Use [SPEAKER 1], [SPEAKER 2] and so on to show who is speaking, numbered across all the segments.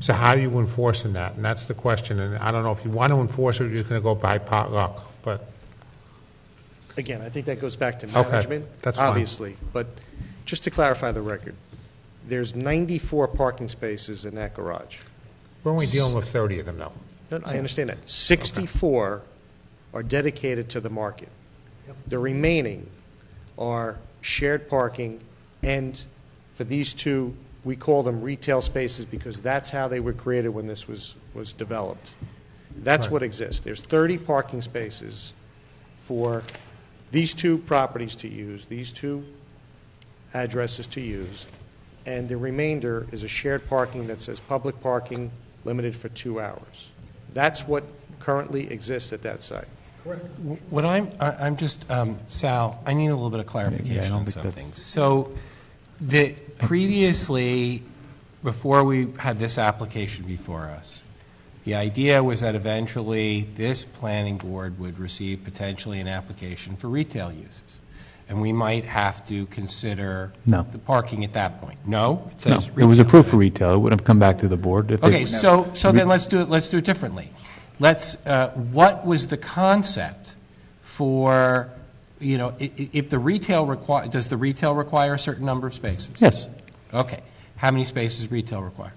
[SPEAKER 1] So how are you enforcing that? And that's the question, and I don't know if you want to enforce it, or you're just going to go by potluck, but,
[SPEAKER 2] Again, I think that goes back to
[SPEAKER 1] Okay,
[SPEAKER 2] management.
[SPEAKER 1] that's fine.
[SPEAKER 2] Obviously, but just to clarify the record, there's 94 parking spaces in that garage.
[SPEAKER 1] we're only dealing with 30 of them, though.
[SPEAKER 2] No, I understand that. 64 are dedicated to the market. The remaining are shared parking, and for these two, we call them retail spaces because that's how they were created when this was, was developed. That's what exists. There's 30 parking spaces for these two properties to use, these two addresses to use, and the remainder is a shared parking that says public parking limited for two hours. That's what currently exists at that site.
[SPEAKER 3] What I'm, I- I'm just, um, Sal, I need a little bit of clarification on something. So, the, previously, before we had this application before us, the idea was that eventually this planning board would receive potentially an application for retail uses. And we might have to consider
[SPEAKER 4] No.
[SPEAKER 3] the parking at that point. No? It
[SPEAKER 4] No,
[SPEAKER 3] says
[SPEAKER 4] it was
[SPEAKER 3] retail.
[SPEAKER 4] approved for retail. It would have come back to the board if they...
[SPEAKER 3] Okay, so, so then let's do it, let's do it differently. Let's, uh, what was the concept for, you know, i- i- if the retail require, does the retail require a certain number of spaces?
[SPEAKER 4] Yes,
[SPEAKER 3] Okay. How many spaces retail require?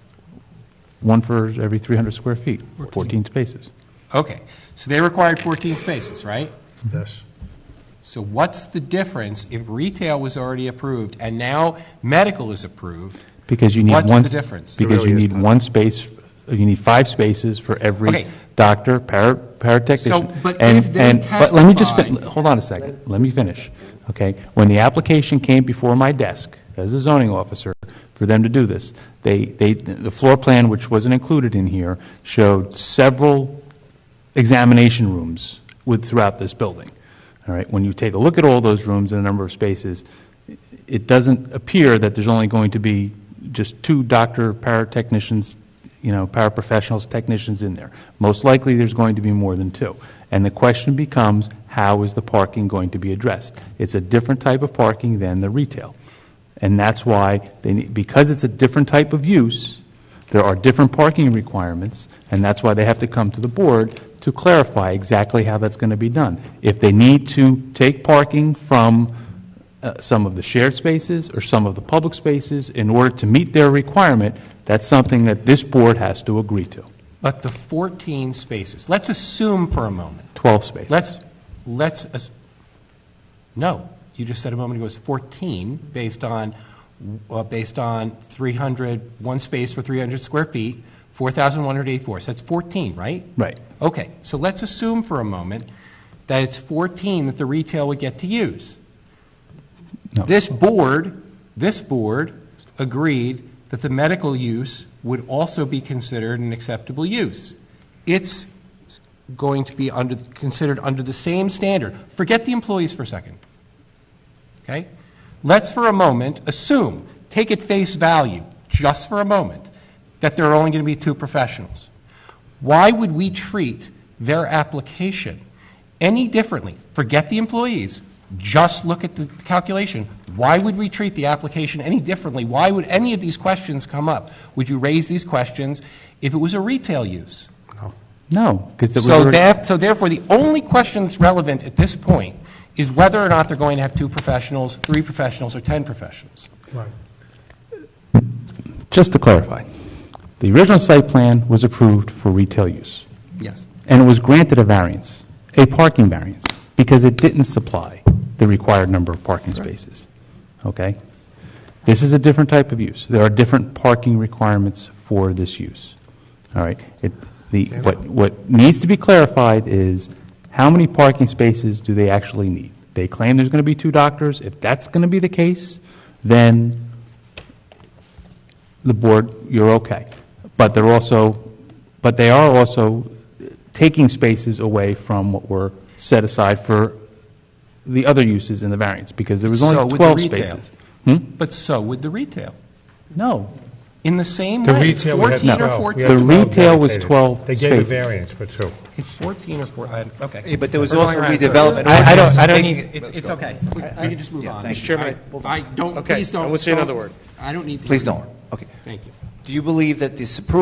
[SPEAKER 4] one for every 300 square feet, 14 spaces.
[SPEAKER 3] Okay, so they required 14 spaces, right?
[SPEAKER 1] Yes.
[SPEAKER 3] So what's the difference if retail was already approved and now medical is approved?
[SPEAKER 4] Because you need one...
[SPEAKER 3] What's the difference?
[SPEAKER 4] Because you
[SPEAKER 1] Really is
[SPEAKER 4] need one space, you need five spaces for
[SPEAKER 3] Okay.
[SPEAKER 4] every doctor, para- paratechnician.
[SPEAKER 3] So, but
[SPEAKER 4] and-
[SPEAKER 3] if they
[SPEAKER 4] and- But let me just, fin-
[SPEAKER 3] testified-
[SPEAKER 4] hold on a second, let me finish, okay? When the application came before my desk, as a zoning officer, for them to do this, they, they, the floor plan, which wasn't included in here, showed several examination rooms with, throughout this building, all right? When you take a look at all those rooms and the number of spaces, i- it doesn't appear that there's only going to be just two doctor, paratechnicians, you know, paraprofessionals, technicians in there. Most likely, there's going to be more than two. And the question becomes, how is the parking going to be addressed? It's a different type of parking than the retail. And that's why, they need because it's a different type of use, there are different parking requirements, and that's why they have to come to the board to clarify exactly how that's going to be done. If they need to take parking from uh, some of the shared spaces or some of the public spaces in order to meet their requirement, that's something that this board has to agree to.
[SPEAKER 3] But the 14 spaces, let's assume for a moment
[SPEAKER 4] 12 spaces.
[SPEAKER 3] Let's, let's, as- no, you just said a moment ago it's 14, based on, uh, based on 300, one space for 300 square feet, 4,184, so that's 14, right?
[SPEAKER 4] Right.
[SPEAKER 3] Okay, so let's assume for a moment that it's 14 that the retail would get to use.
[SPEAKER 4] No.
[SPEAKER 3] This board, this board agreed that the medical use would also be considered an acceptable use. It's going to be under, considered under the same standard. Forget the employees for a second. Okay? Let's for a moment assume, take at face value, just for a moment, that there are only going to be two professionals. Why would we treat their application any differently? Forget the employees, just look at the calculation. Why would we treat the application any differently? Why would any of these questions come up? Would you raise these questions if it was a retail use?
[SPEAKER 4] No, because it was
[SPEAKER 3] So
[SPEAKER 4] already...
[SPEAKER 3] that, so therefore, the only question that's relevant at this point is whether or not they're going to have two professionals, three professionals, or 10 professionals.
[SPEAKER 1] Right.
[SPEAKER 4] Just to clarify, the original site plan was approved for retail use.
[SPEAKER 3] Yes.
[SPEAKER 4] and it was granted a variance, a parking variance, because it didn't supply the required number of parking spaces. Okay? This is a different type of use. There are different parking requirements for this use. All right? It, the, what, what needs to be clarified is how many parking spaces do they actually need? They claim there's going to be two doctors. If that's going to be the case, then the board, you're okay. But they're also, but they are also taking spaces away from what were set aside for the other uses in the variance, because there was
[SPEAKER 3] So
[SPEAKER 4] only
[SPEAKER 3] would the
[SPEAKER 4] 12
[SPEAKER 3] retail.
[SPEAKER 4] spaces.
[SPEAKER 3] But so would the retail.
[SPEAKER 4] No,
[SPEAKER 3] In the same
[SPEAKER 1] The
[SPEAKER 3] way, it's
[SPEAKER 1] retail, we had
[SPEAKER 3] 14 or
[SPEAKER 1] 12. We
[SPEAKER 3] 14.
[SPEAKER 1] had
[SPEAKER 4] The
[SPEAKER 1] 12
[SPEAKER 4] retail was
[SPEAKER 1] dedicated.
[SPEAKER 4] 12
[SPEAKER 1] They gave a
[SPEAKER 4] spaces.
[SPEAKER 1] variance for two.
[SPEAKER 3] It's 14 or 14, okay.
[SPEAKER 5] Yeah, but there was
[SPEAKER 3] We're going
[SPEAKER 5] also
[SPEAKER 3] around.
[SPEAKER 5] redevelopment.
[SPEAKER 4] I- I don't- I don't
[SPEAKER 5] Making
[SPEAKER 4] need-
[SPEAKER 5] it-
[SPEAKER 3] It's,
[SPEAKER 5] let's
[SPEAKER 3] it's
[SPEAKER 5] go.
[SPEAKER 3] okay. We can just move
[SPEAKER 5] Yeah,
[SPEAKER 3] on.
[SPEAKER 5] thank you.
[SPEAKER 2] Chairman,
[SPEAKER 3] I I don't,
[SPEAKER 2] Okay,
[SPEAKER 3] please don't.
[SPEAKER 2] I would say another
[SPEAKER 3] don't-
[SPEAKER 2] word.
[SPEAKER 3] I don't need to.
[SPEAKER 5] Please don't. Okay.
[SPEAKER 3] Thank you.
[SPEAKER 5] Do you believe that this approval